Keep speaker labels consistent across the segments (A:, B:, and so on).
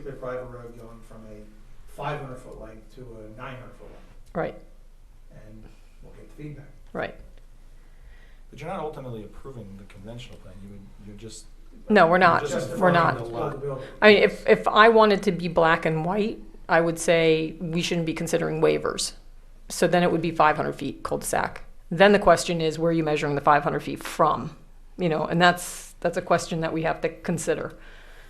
A: particular private road going from a five hundred foot length to a nine hundred foot length,
B: Right,
A: and we'll get the feedback.
B: right.
C: But you're not ultimately approving the conventional plan, you would, you're just.
B: No, we're not.
C: Just
A: Justifying
B: We're not.
A: the
C: defining the lot.
A: building.
B: I mean, if, if I wanted to be black and white, I would say we shouldn't be considering waivers. So then it would be 500 feet cul-de-sac. Then the question is, where are you measuring the 500 feet from? You know, and that's, that's a question that we have to consider.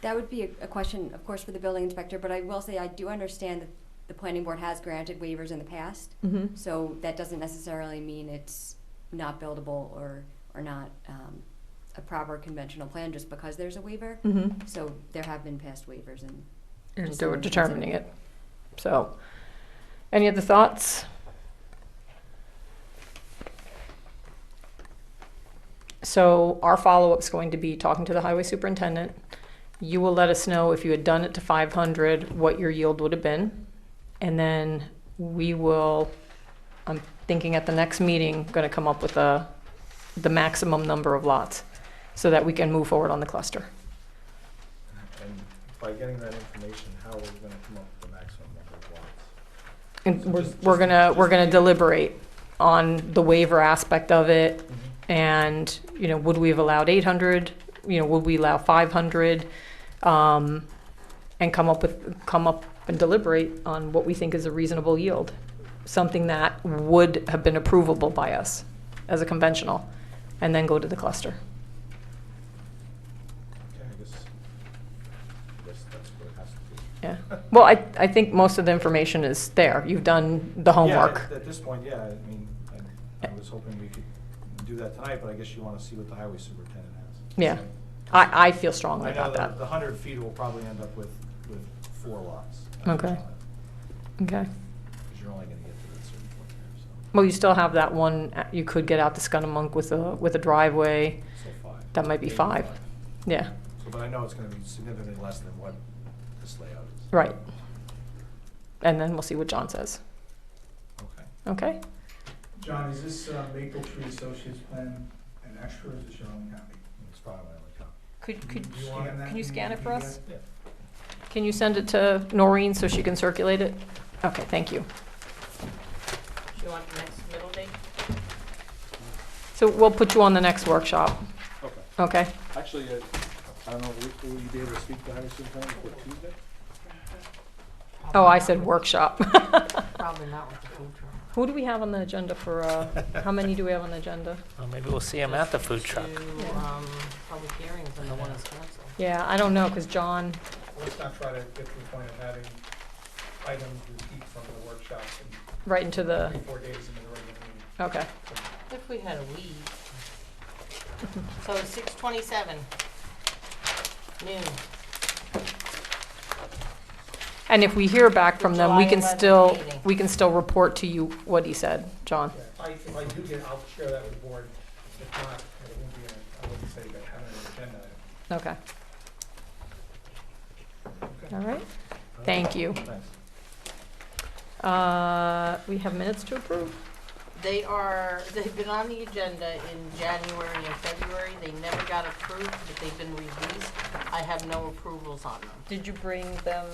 D: That would be a, a question, of course, for the building inspector, but I will say I do understand that the planning board has granted waivers in the past,
B: Mm-hmm.
D: so that doesn't necessarily mean it's not buildable or, or not, um, a proper conventional plan just because there's a waiver.
B: Mm-hmm.
D: So there have been past waivers and
B: And
D: Just
B: so we're
D: something to
B: determining it. So, any other thoughts? So our follow-up's going to be talking to the highway superintendent. You will let us know if you had done it to five hundred, what your yield would have been. And then we will, I'm thinking at the next meeting, gonna come up with a, the maximum number of lots so that we can move forward on the cluster.
C: And by getting that information, how are we gonna come up with the maximum number of lots?
B: And
C: So
B: we're,
C: just-
B: we're
C: just-
B: gonna, we're
C: just-
B: gonna deliberate on the waiver aspect of it and, you know, would we have allowed eight hundred? You know, would we allow five hundred? Um, and come up with, come up and deliberate on what we think is a reasonable yield. Something that would have been approvable by us as a conventional and then go to the cluster.
C: Okay, I guess, I guess that's what it has to be.
B: Yeah. Well, I, I think most of the information is there. You've done the
C: Yeah,
B: homework.
C: at- at this point, yeah, I mean, I, I was hoping we could do that tonight, but I guess you wanna see what the highway superintendent has.
B: Yeah.
C: So-
B: I, I feel strongly
C: I know
B: about
C: the,
B: that.
C: the hundred feet will probably end up with, with four lots.
B: Okay. Okay.
C: Because you're only gonna get to that certain point there,
B: Well, you still have that one, uh, you could get out to Scunamunk with a, with a driveway.
C: so, so five.
B: That might be
C: Maybe
B: five. Yeah,
C: So, but I know it's gonna be significantly less than what this layout is.
B: right. And then we'll see what John says.
C: Okay.
B: Okay?
A: John, is this uh, Maple Tree Associates plan an extra, or is this your own copy?
C: It's probably my only copy.
B: Could,
A: could you- can you scan it for us?
C: Yeah.
B: Can you send it to Noreen so she can circulate it? Okay, thank you.
E: Do you want the next middle date?
B: So we'll put you on the next workshop,
F: Okay,
B: okay?
F: actually, uh, I don't know, will- will you be able to speak to Harrison County for Tuesday?
B: Oh, I said workshop.
E: Probably not with the food truck.
B: Who do we have on the agenda for, uh, how many do we have on the agenda?
G: Well, maybe we'll see him at the food truck.
E: Two,
B: Yeah.
E: um, public hearings and the one is canceled.
B: Yeah, I don't know, because John,
A: Let's not try to get to the point of having items repeat from the workshop in
B: right into the,
A: three, four days into the regular meeting.
B: okay.
E: If we had a weed. So six twenty-seven. Noon.
B: And if we hear back from them, we
E: July
B: can
E: 11th
B: still,
E: meeting.
B: we can still report to you what he said, John.
A: Yeah, If I, if I do get, I'll share that with the board. If not, it won't be, a- I wouldn't say that having an agenda item.
B: Okay. All right, thank you.
C: Thanks.
B: Uh, We have minutes to approve?
E: They are, they've been on the agenda in January and February. They never got approved, but they've been released. I have no approvals on them.
B: Did you bring them,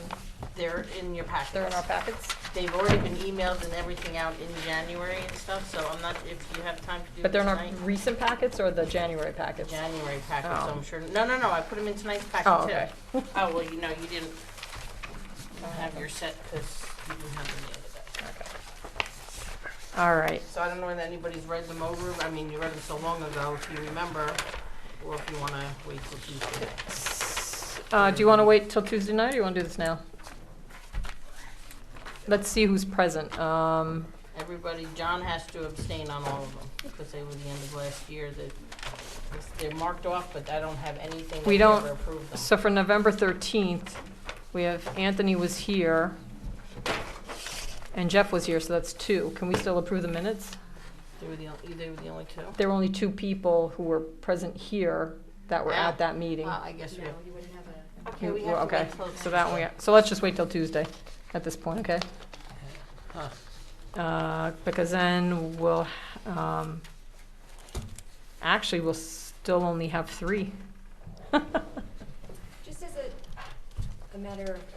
E: They're in your packets.
B: packets?
E: They've already been emailed and everything out in January and stuff, so I'm not, if you have time to do it
B: But they're in our
E: tonight.
B: recent packets or the January packets?
E: January packet, so
B: Oh.
E: I'm sure, no, no, no, I put them in tonight's packet too.
B: Oh, okay.
E: Oh, well, you know, you didn't, you don't have your set, because you didn't have any of it.
B: All right,
E: So I don't know if anybody's read them over, I mean, you read them so long ago, if you remember, or if you wanna wait till Tuesday.
B: S- uh, do you want to wait till Tuesday night or you want to do this now? Let's see who's present. Um,
E: Everybody, John has to abstain on all of them, because they were the end of last year, that, they're marked off, but I don't have anything that
B: We
E: we
B: don't-
E: ever approved them.
B: So for November 13th, we have Anthony was here, and Jeff was here, so that's two. Can we still approve the minutes?
E: They were the, on- they were the only two?
B: There were only two people who were present here that were at that meeting.
E: Uh, I guess we have.
D: you wouldn't have a
E: Okay,
B: You-
E: we have to
B: okay,
E: wait till.
B: So that one, we- so let's just wait till Tuesday at this point, okay?
E: Huh.
B: Uh, Because then we'll, um, actually, we'll still only have three.
D: Just as a, a matter of